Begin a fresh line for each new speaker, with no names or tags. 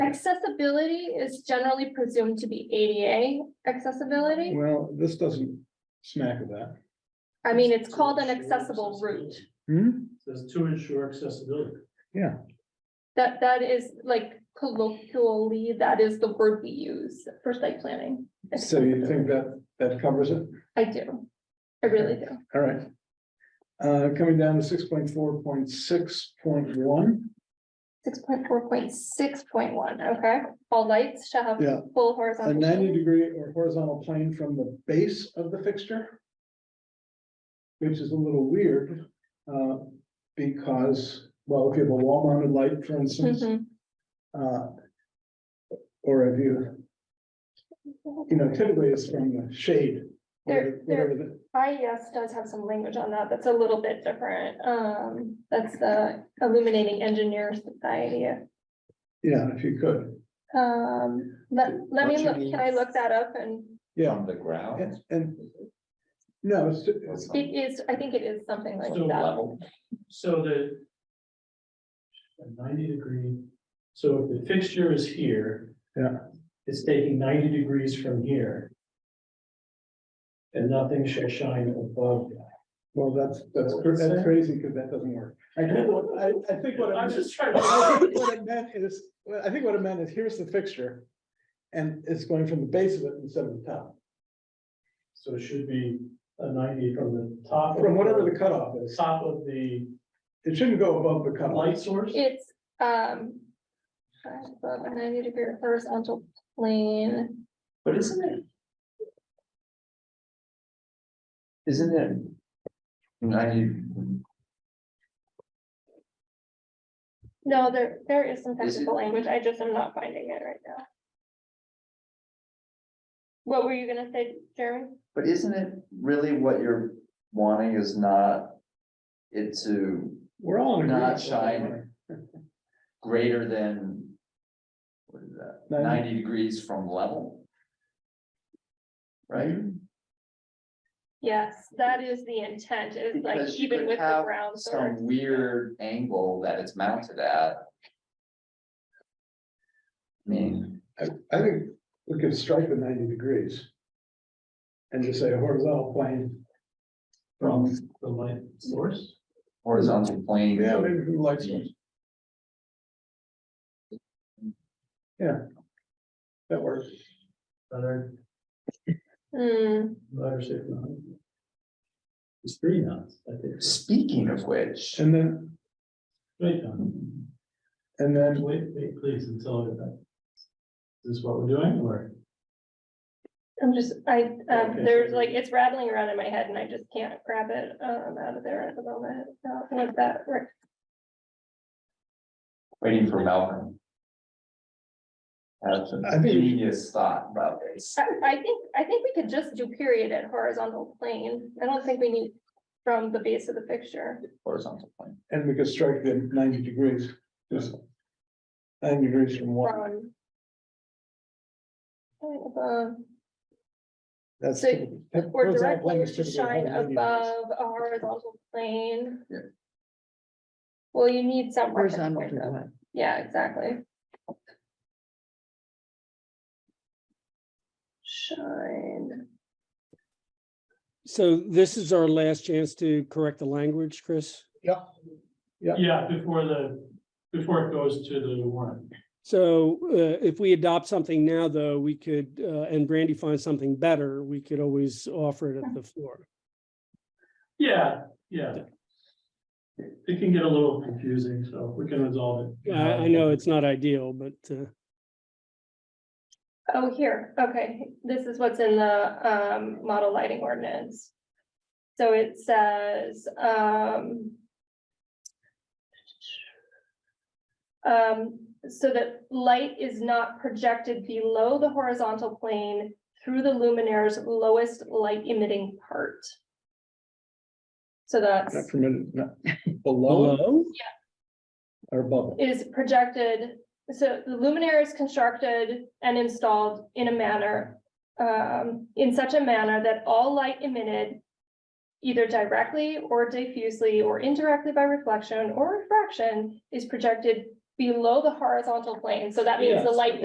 Accessibility is generally presumed to be ADA accessibility.
Well, this doesn't smack of that.
I mean, it's called an accessible route.
Hmm,
Says to ensure accessibility.
yeah,
That, that is like colloquially, that is the word we use for site planning.
so you think that, that covers it?
I do. I really do.
All right. Uh, coming down to six point four point six point one,
Six point four point six point one, okay? All lights shall have
Yeah.
full
a
horizontal.
ninety degree or horizontal plane from the base of the fixture. Which is a little weird, uh, because, well, if you have a wall mounted light, for instance,
Mhm.
uh. Or if you,
Mm-hmm.
you know, typically it's from the shade.
There-
whatever-
there-
whatever the-
IES E does have some language on that, that's a little bit different. Um, that's the Illuminating Engineer Society.
Yeah, if you could,
Um, let, let me
What you
look, can I look that up and
yeah,
on the ground.
and, and- No, it's,
or something.
it is, I think it is something like
So
that.
Level.
So the. a Ninety degree, so if the fixture is here.
Yeah.
It's taking ninety degrees from here. And nothing shall shine above. that.
well, that's, that's, cr- that's crazy, because that doesn't work. I think, what- I, I think what. it
I'm
meant-
just trying
I
to.
think What it meant is, well, I think what it meant is, here's the fixture. And it's going from the base of it instead of the top,
So it should be a ninety from the top.
from whatever the cutoff is,
Top of the
it shouldn't go above the cutoff.
light source.
It's, um. Above a ninety degree horizontal plane.
But isn't it? Isn't it? Ninety,
No, there, there is some
Is it-
technical language, I just am not finding it right now. What were you gonna say, Jeremy?
but isn't it really what you're wanting is not it to
We're all. in agreement.
Not shine. greater than what is that,
Ninety.
ninety degrees from level?
Mm-hmm.
Right?
Yes, that is the intent, is like
Because you
even
could
with the
have
ground source.
Some weird angle that it's mounted at. I mean,
I, I think we could strike the ninety degrees. And just say a horizontal plane.
From the light source.
horizontal plane.
Yeah, maybe from the light source. Yeah. That works.
Better,
Hmm,
better safe than sorry. It's three knots, I think.
Speaking of which.
And then,
Wait, um,
and then,
Wait, wait, please, until I get back. Is this what we're doing, or?
I'm just, I, um,
Okay.
there's like, it's rattling around in my head and I just can't grab it, um, out of there at the moment, uh, what that, right,
Waiting for Malcolm. That's
I
a
think-
genius thought about this.
I, I think, I think we could just do period at horizontal plane. I don't think we need from the base of the picture.
Horizontal plane.
and we could strike the ninety degrees, just. Ninety degrees from one,
from- Shine above,
that's.
So-
typical. That
Or
horizontal plane
directly
is
to
typically
shine
190 degrees.
above a horizontal plane.
Yeah.
Well, you need some. reference
Horizontal
point,
to
though.
what?
Yeah, exactly. Shine.
So this is our last chance to correct the language, Chris.
Yeah.
Yeah, before the, before it goes to the warrant.
So uh, if we adopt something now, though, we could, uh, and Brandy finds something better, we could always offer it at the floor.
Yeah, yeah. It can get a little confusing, so we can resolve it.
I, I know it's not ideal, but uh,
Oh, here, okay, this is what's in the um model lighting ordinance. So it says, um. um, so that light is not projected below the horizontal plane through the luminaire's lowest light emitting part. So that's,
Not permitted, not below
below,
or above. it.
it is projected, so the luminaire is constructed and installed in a manner. Um, in such a manner that all light emitted. Either directly or diffusely or indirectly by reflection or refraction is projected below the horizontal plane, so that means the
Yes.
light